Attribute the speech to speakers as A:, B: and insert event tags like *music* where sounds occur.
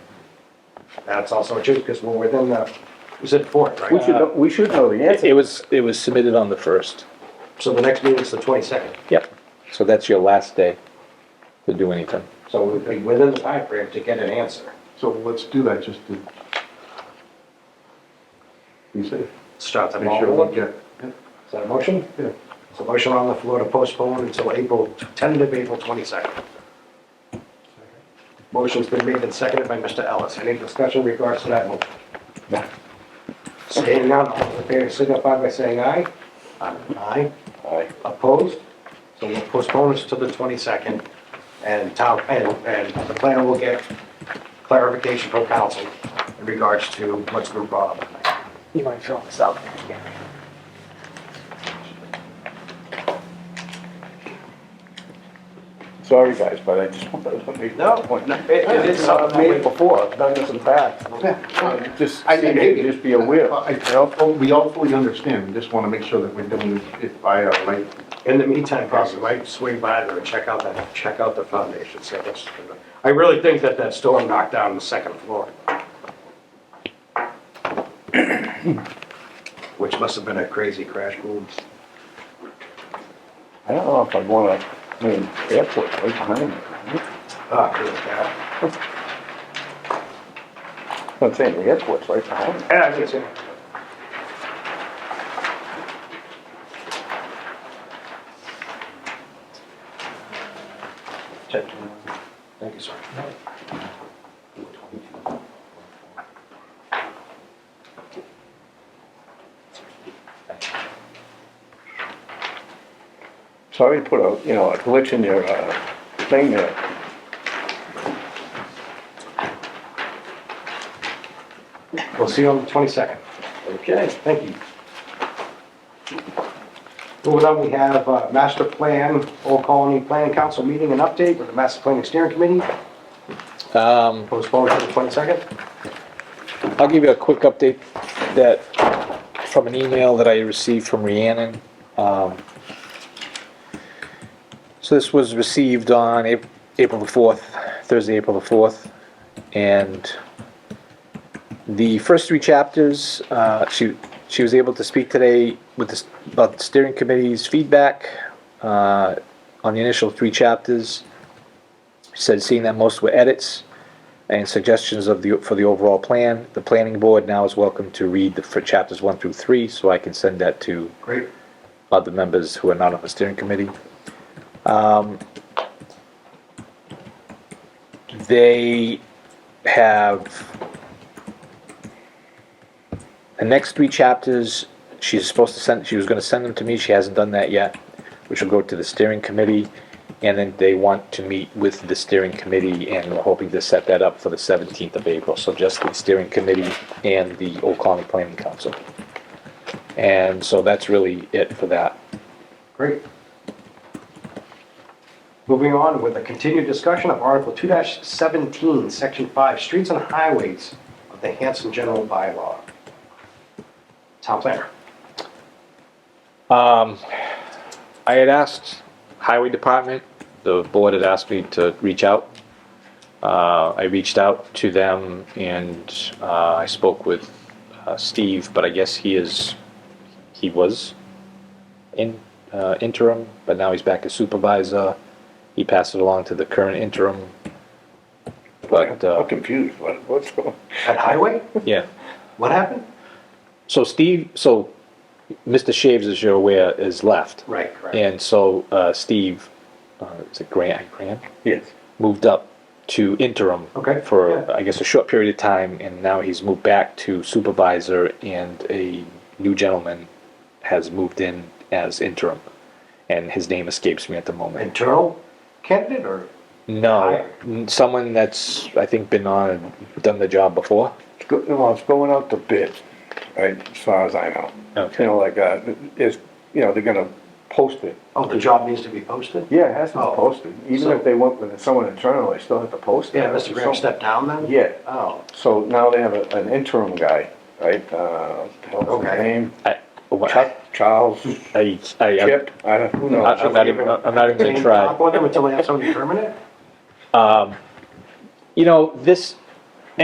A: That's also true, because we're within the, we said four,
B: We
A: right?
B: should, know- we should know
A: Uh,
B: the
C: It
B: answer.
C: was, it was submitted on the first.
A: So the next meeting's the twenty-second,
C: Yep. So that's your last day to do anything.
A: so we'd be within the time frame to get an answer.
B: So let's do that, just to be safe.
A: Start the
B: Make
A: ball
B: sure we
A: rolling.
B: get-
A: Is that a motion?
B: Yeah.
A: It's a motion on the floor to postpone until April, tentative April 22nd. Motion's been made and seconded by Mr. Ellis. Any discussion in regards to that motion? Seeing none, all those in favor signify by saying aye. Aye.
B: Aye.
A: Opposed? So we'll postpone this to the 22nd, and town, and, and the planner will get clarification from council in regards to what's been brought up tonight.
D: You want to fill this out?
B: Sorry, guys, but I just wanted to make that point.
A: it is something
B: I've
A: that
B: made it before, I've done this in the past. Just,
E: I think maybe-
B: just be aware.
E: Well, I, I all- oh, we all fully understand, we just wanna make sure that we're doing it by our light.
A: In the meantime, probably might swing by there and check out that, check out the foundation, so that's, I really think that that storm knocked down the second floor. *clears throat* Which must have been a crazy crash boom.
B: I don't know if I'd wanna, I mean, airport right behind me.
A: Ah, it was bad.
B: I'm saying the airport's right behind me.
A: Yeah, I can see. Thank you, sir.
B: Sorry to put a, you know, a glitch in your, uh, thing there.
A: We'll see you on the twenty-second.
B: Okay.
A: Thank you. Moving on, we have uh, Master Plan, Old Colony Plan Council meeting and update with the Master Planning Steering Committee,
C: Um,
A: postponed to the 22nd.
C: I'll give you a quick update that, from an email that I received from Rhiannon. Um, So this was received on Ap- April the 4th, Thursday, April the 4th. And the first three chapters, uh, she, she was able to speak today with the, s- about the steering committee's feedback uh, on the initial three chapters. She Said seeing that most were edits, and suggestions of the, for the overall plan. The planning board now is welcome to read the, for chapters one through three, so I can send that to
A: Great.
C: other members who are not on the steering committee. Um, They have, the next three chapters, she's supposed to send, she was gonna send them to me, she hasn't done that yet, which will go to the steering committee, and then they want to meet with the steering committee, and we're hoping to set that up for the seventeenth of April, so just the steering committee and the Old Colony Planning Council. And so that's really it for that.
A: Great. Moving on with a continued discussion of Article 2-17, Section 5, Streets and Highways of the Hanson General Bylaw. Town planner.
C: Um, I had asked Highway Department, the board had asked me to reach out. Uh, I reached out to them and, uh, I spoke with, uh, Steve, but I guess he is, he was in, uh, interim, but now he's back as supervisor. He passed it along to the current interim. But, uh,
B: I'm confused, what, what's going?
A: At Highway?
C: yeah.
A: What happened?
C: So Steve, so Mr. Shaves, as you're aware, is left.
A: Right, correct.
C: And so uh, Steve, uh, is it Grant? Grant
B: Yes.
C: moved up to interim
A: Okay,
C: for
A: yeah.
C: I guess a short period of time, and now he's moved back to supervisor, and a new gentleman has moved in as interim, and his name escapes me at the moment.
A: Internal candidate or?
C: No, n- someone that's I think been on done the job before.
B: It's go, well, it's going out to bid, right, as far as I know.
C: Okay.
B: You know, like, uh, it's, you know, they're gonna post it.
A: Oh, the job needs to be posted?
B: Yeah, it has to be
A: Oh.
B: posted, even
A: So-
B: if they went with someone internal, they still have to post it.
A: Yeah, Mr. Graham
B: So-
A: stepped down then?
B: Yeah.
A: Oh,
B: So now they have a- an interim guy, right, uh, what's his
A: Okay.
B: name?
C: I, what-
B: Chuck, Charles,
C: I, I, I,
B: Chip, I don't, who knows?
C: I, I'm not even, I'm not even
A: can
C: gonna
A: you
C: try.
A: talk with them until they have somebody permanent?
C: You know, this,